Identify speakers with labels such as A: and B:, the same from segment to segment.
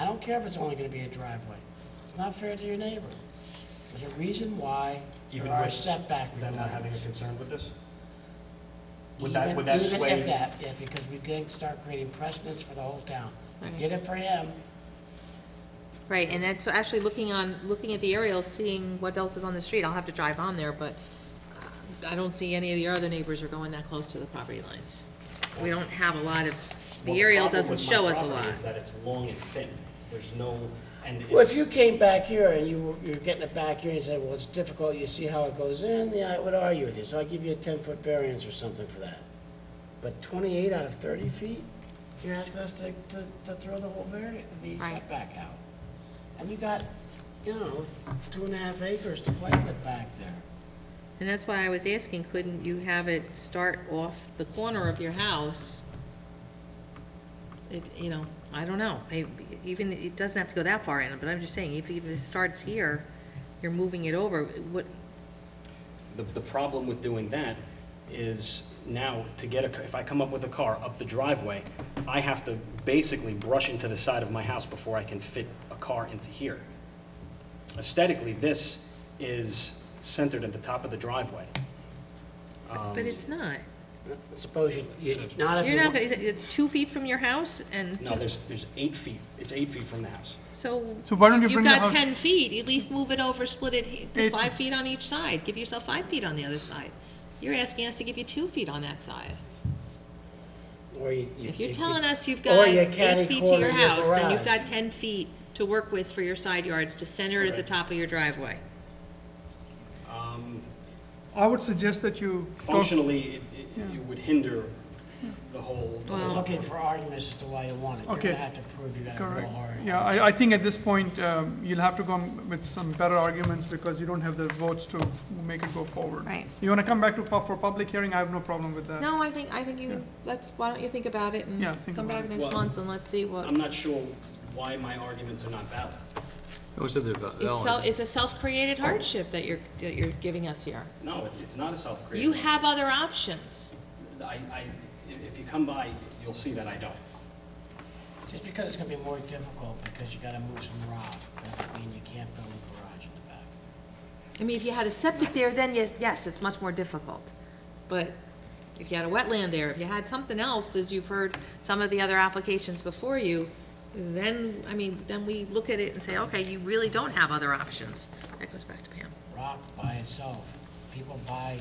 A: don't care if it's only gonna be a driveway. It's not fair to your neighbor. There's a reason why there
B: Even
A: are
B: with
A: setback
B: Them not having a
A: requirements.
B: concern with this? Would that,
A: Even-
B: would that sway?
A: Even if that, yeah, because we can start creating precedents for the whole town. We did it for him,
C: Right, and that's actually looking on, looking at the aerial, seeing what else is on the street. I'll have to drive on there, but uh, I don't see any of your other neighbors are going that close to the property lines. We don't have a lot of,
B: Well,
C: the aerial
B: problem
C: doesn't
B: with my
C: show us a
B: property
C: lot.
B: Is that it's long and thin, there's no, and
A: Well, if
B: it's,
A: you came back here and you, were- you're getting it back here and said, well, it's difficult, you see how it goes in, yeah, I would argue with you, so I'll give you a ten-foot variance or something for that. But twenty-eight out of thirty feet, you're asking us to, to, to throw the whole vari, the
C: Right.
A: setback out. And you got, you know, two and a half acres to play with back there.
C: And that's why I was asking, couldn't you have it start off the corner of your house? It, you know, I don't know, I- even, it doesn't have to go that far in, but I'm just saying, if even it starts here, you're moving it over, what,
B: the, the problem with doing that is now to get a, ca- if I come up with a car up the driveway, I have to basically brush into the side of my house before I can fit a car into here. Aesthetically, this is centered at the top of the driveway. Um,
C: but it's not.
A: Suppose you, you, not if you
C: You're not,
A: want.
C: it's two feet from your house and,
B: No, there's, there's eight feet, it's eight feet from the house.
C: so.
D: So why don't you
C: if
D: bring the
C: You've
D: house-
C: got ten feet, at least move it over, split it, put
D: Eight-
C: five feet on each side, give yourself five feet on the other side. You're asking us to give you two feet on that side.
A: or you- you-
C: If you're
A: you-
C: telling us you've
A: Or
C: got
A: you
C: eight feet to
A: catty-corner
C: your
A: your
C: house, then you've
A: garage.
C: got ten feet to work with for your side yards to center it at the top of your driveway.
D: I would suggest that you go,
B: Functionally, it, it- it would hinder the whole, the
A: You're
B: whole
A: looking for arguments as to why you want it, you're
D: Okay.
A: gonna have to prove you got a full
D: correct.
A: heart.
D: Yeah, I, I think at this point, um, you'll have to come with some better arguments because you don't have the votes to make it go forward.
C: Right.
D: You wanna come back to, pu- for public hearing, I have no problem with that.
C: No, I think, I think you, let's, why don't you think about it
D: Yeah,
C: and
D: think
C: come
D: about
C: back
D: it.
C: next
B: Well,
C: month and let's see what.
B: I'm not sure why my arguments are not valid.
E: Those are the val-
C: It's so,
E: valid.
C: it's a self-created hardship that you're, that you're giving us here.
B: No, it- it's not a self-created.
C: You have other options.
B: I, I, if if you come by, you'll see that I don't.
A: Just because it's gonna be more difficult because you gotta move some rock, doesn't mean you can't build a garage in the back.
C: I mean, if you had a septic there, then yes, yes, it's much more difficult. But if you had a wetland there, if you had something else, as you've heard some of the other applications before you, then, I mean, then we look at it and say, okay, you really don't have other options. That goes back to Pam.
A: Rock by itself, people buy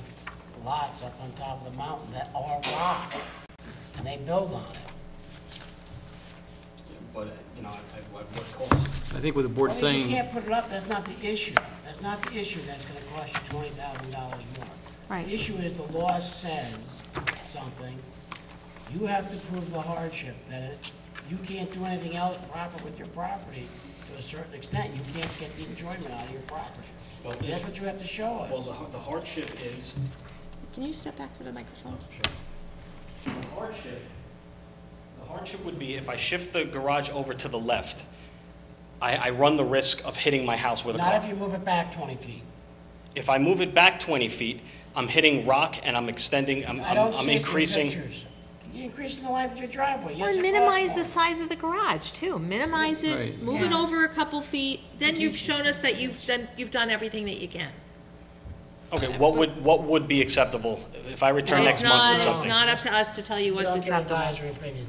A: lots up on top of the mountain that are rock, and they build on it.
B: But, uh, you know, at at what what cost?
E: I think what the board's
A: Well, If you
E: saying,
A: can't put it up, that's not the issue, that's not the issue that's gonna cost you twenty thousand dollars more.
C: Right.
A: The issue is the law says something, you have to prove the hardship, that it- you can't do anything else proper with your property to a certain extent, you can't get the enjoyment out of your property.
B: Well,
A: That's
B: if-
A: what you have to show
B: Well,
A: us.
B: the har- the hardship is, Oh,
C: Can you step back for the microphone?
B: The hardship, the hardship would be if I shift the garage over to the left, I, I run the risk of hitting my house with a
A: Not if
B: car.
A: you move it back twenty feet.
B: If I move it back 20 feet, I'm hitting rock and I'm extending, I'm,
A: I
B: I'm
A: don't
B: I'm
A: see it in
B: increasing.
A: pictures. You're increasing the length of your driveway, yes, it
C: Well,
A: costs
C: minimize the
A: more.
C: size of the garage too. Minimize it,
E: Right.
C: move it over a couple feet, then you've shown us that you've done, you've done everything that you can.
B: Okay, what would, what would be acceptable if I return next
C: It's
B: month with
C: not-
B: something?
C: It's not up to us to tell you
A: You
C: what's
A: don't give
C: acceptable.
A: advisory opinion.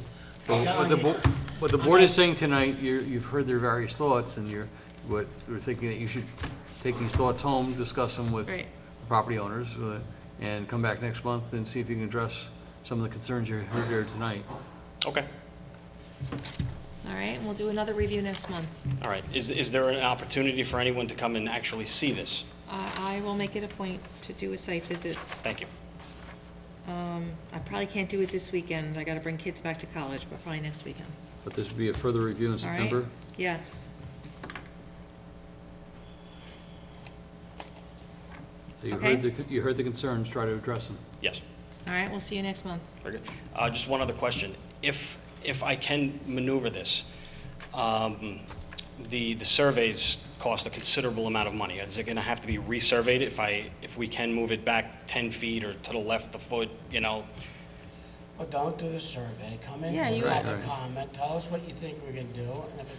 E: what the, bo- what the board is saying tonight, you, you've heard their various thoughts, and you're, what, we're thinking that you should take these thoughts home, discuss them with
C: Right.
E: property owners, uh, and come back next month and see if you can address some of the concerns you heard there tonight.
B: Okay,
C: All right, and we'll do another review next month.
B: all right. Is, is there an opportunity for anyone to come and actually see this?
C: Uh, I will make it a point to do a site visit.
B: Thank you.
C: I probably can't do it this weekend, I gotta bring kids back to college, but probably next weekend,
E: But this would be a further review in
C: all right?
E: September.
C: Yes.
E: So you
C: Okay.
E: heard the, you heard the concerns, try to address them.
B: Yes.
C: All right, we'll see you next month.
B: Very good. Uh, Just one other question. If, if I can maneuver this, um, the, the surveys cost a considerable amount of money. Is it going to have to be resurveyed if I, if we can move it back 10 feet or to the left a foot, you know?
A: Well, don't do the survey, come in,
C: Yeah, you-
A: have
E: Right,
A: a
E: right.
A: comment, tell us what you think we're gonna do, and if it's